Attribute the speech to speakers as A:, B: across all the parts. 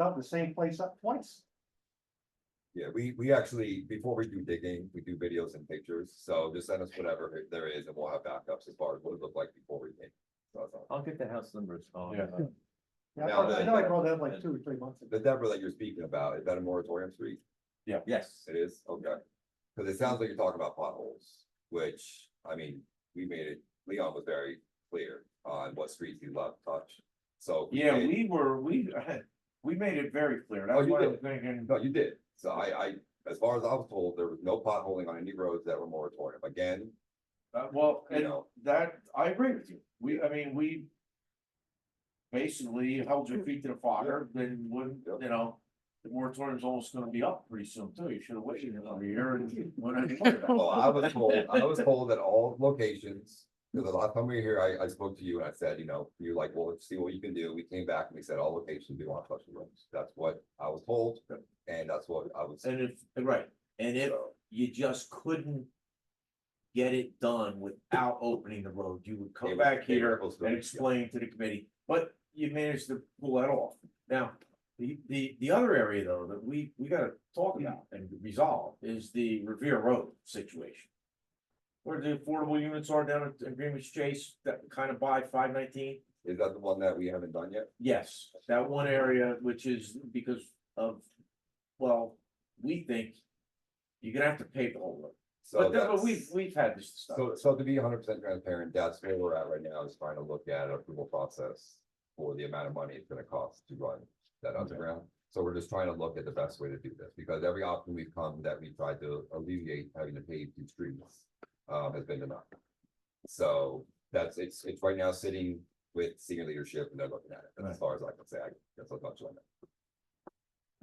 A: up the same place up twice.
B: Yeah, we, we actually, before we do digging, we do videos and pictures, so just send us whatever there is and we'll have backups as far as what it looked like before we dig. So that's all.
C: I'll get the house numbers. I'll,
D: Yeah.
C: uh,
A: Yeah, I
B: Now
A: thought- I
B: that-
A: know I brought that up like two or three months
B: The
A: ago.
B: Deborah that you're speaking about, is that a moratorium street?
C: Yes,
B: It is, okay. Cause it sounds like you're talking about potholes, which, I mean, we made it, Leon was very clear on what streets he loved to touch. So.
D: Yeah,
B: it-
D: we were, we, we made it very clear,
B: Oh,
D: that's
B: you
D: why I
B: did.
D: was thinking,
B: No, you did. So I, I, as far as I was told, there was no potholing on any roads that were moratorium. Again,
D: uh, well,
B: you
D: and
B: know,
D: that, I agree with you, we, I mean, we. Basically held your feet to the fire, then wouldn't,
B: Yep.
D: you know, the moratorium's almost gonna be up pretty soon too, you should have waited another year and. went ahead and done that.
B: Well, I was told, I was told that all locations, because the last time we were here, I, I spoke to you and I said, you know, you're like, well, let's see what you can do. We came back and we said, all locations, we want flushing rooms. That's what I was told, and that's what I was.
C: and if, right, and if you just couldn't. Get it done without opening the road, you would
B: They
C: come
B: were-
C: back
B: they were
C: here
B: supposed to-
C: and
B: yeah.
C: explain to the committee, but you managed to pull that off. Now, the, the, the other area though, that we, we gotta talk about
B: Hmm.
C: and resolve is the Revere Road situation. Where the affordable units are down at Greenwich Chase, that kind of by five nineteen.
B: Is that the one that we haven't done yet?
C: Yes, that one area, which is because of, well, we think you're gonna have to pay the whole road.
B: So
C: But then, but
B: Oh, that's,
C: we've, we've had this stuff.
B: so, so to be hundred percent transparent, that's where we're at right now is trying to look at approval process for the amount of money it's gonna cost to run that underground. So we're just trying to look at the best way to do this, because every option we've come that we tried to alleviate having to pave two streets, um, has been enough. So that's, it's, it's right now sitting with senior leadership and they're looking at it, and as far as I can say, I, that's a bunch on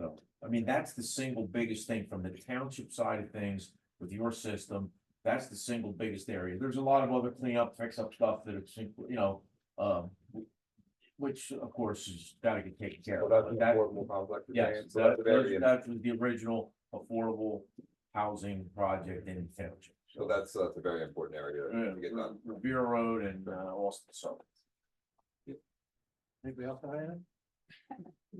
B: it.
C: I mean, that's the single biggest thing from the township side of things with your system. That's the single biggest area. There's a lot of other cleanup, fix up stuff that it's, you know, um. Which of course is gotta get taken care
B: So
C: of.
B: that's
C: but
B: an
C: that-
B: affordable complex you're
C: Yes,
B: saying? So
C: that
B: that's a very-
C: those- that was the original affordable housing project in the township.
B: So that's, that's a very important area
D: Yeah,
B: to get done.
D: Revere Road and uh, Austin, so.
A: Anybody else have anything?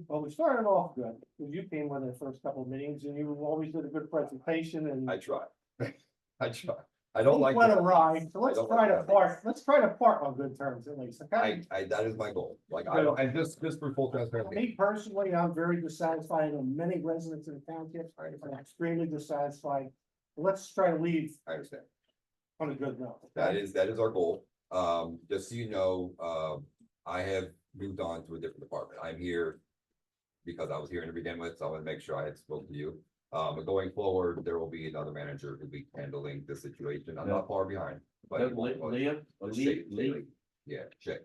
A: Well, we started off good. You came one of the first couple of meetings and you always did a good presentation and.
B: I try. I try. I don't like.
A: Went
B: the-
A: awry, so let's
B: I don't
A: try
B: like
A: to
B: that.
A: part, let's try to part on good terms at least,
B: I,
A: okay?
B: I, that is my goal. Like, I don't, and just, just for full transparency,
A: Me personally, I'm very dissatisfied, I know many residents in the township
B: I
A: are
B: understand,
A: extremely dissatisfied. Let's try to leave
B: I understand.
A: on a good note.
B: That is, that is our goal. Um, just so you know, um, I have moved on to a different department. I'm here. Because I was here to begin with, so I want to make sure I had spoke to you. Um, but going forward, there will be another manager who'll be handling this situation. I'm not far behind. but
C: That
B: he
C: Le-
B: will-
C: Leah,
B: It's
C: Lee,
B: Shay-
C: Lee,
B: Shay- Yeah, Shay.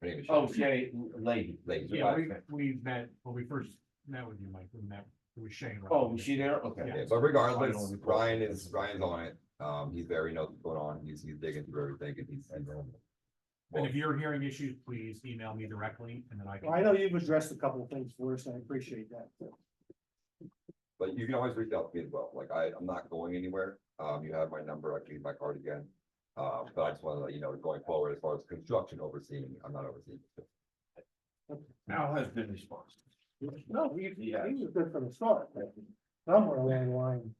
B: Her name is Shay.
C: oh, Shay, Lady.
B: Lady.
E: Yeah, we,
C: Okay.
E: we met, when we first met with you, Mike, we met, it was Shane. right?
C: Oh, was she there? Okay.
E: Yeah.
B: Yeah, but regardless,
C: Final report.
B: Ryan is, Ryan's on it. Um, he's very knows what's going on. He's, he's digging through everything and he's. he's on it.
E: And if you're hearing issues, please email me directly and then I
A: Well, I
E: can,
A: know you've addressed a couple of things for us, and I appreciate that.
B: But you can always reach out to me as well. Like I, I'm not going anywhere. Um, you have my number. I can use my card again. Um, but I just want to let you know, going forward, as far as construction overseeing, I'm not overseeing.
C: Al has been responsible.
A: No, we, he
C: Yeah.
A: was good from the start, but somewhere along the line.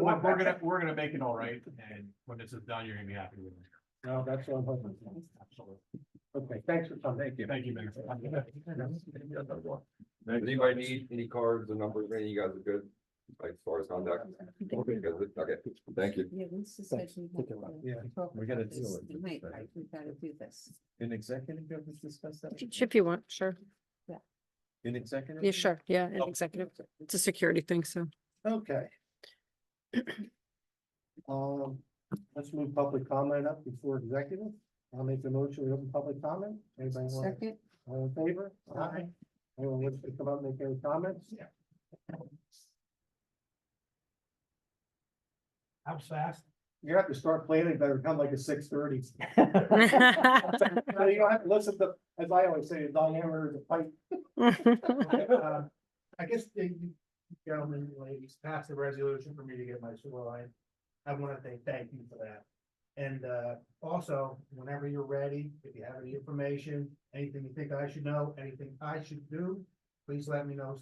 E: we're, we're gonna, we're gonna make it all right, and when this is done, you're gonna be happy with it.
A: No, that's what I'm hoping. for.
E: Absolutely.
A: Okay, thanks for coming. Thank you.
E: Thank you, Mayor.
B: Does anybody need any cards or numbers? or Any, you guys are good? Like as far as contact? Okay, you guys are- okay, thank you.
F: Yeah, we just said we have to
A: Yeah.
F: talk
C: We gotta
F: about this
C: deal with it,
F: tonight,
C: but-
F: right? We gotta do this.
C: In executive, you have discussed
G: If you want, sure.
C: In executive?
G: Yeah, sure. Yeah, an executive. It's a security thing, so.
A: Okay. Um, let's move public comment up before executive. I'll make the motion, we open public comment. Anybody want,
F: Second,
A: all in favor?
F: Aye.
A: Anyone wish to come up and make any comments? Yeah.
E: How fast?
A: You have to start planning, better come like a six thirty. So you don't have to listen to, as I always say, the Don Hammer, the pipe.
E: Uh, I guess the you gentlemen, and ladies, passed a resolution for me to get my sewer line. I want to say thank you for that. And uh, also, whenever you're ready, if you have any information, anything you think I should know, anything I should do,
A: please let me know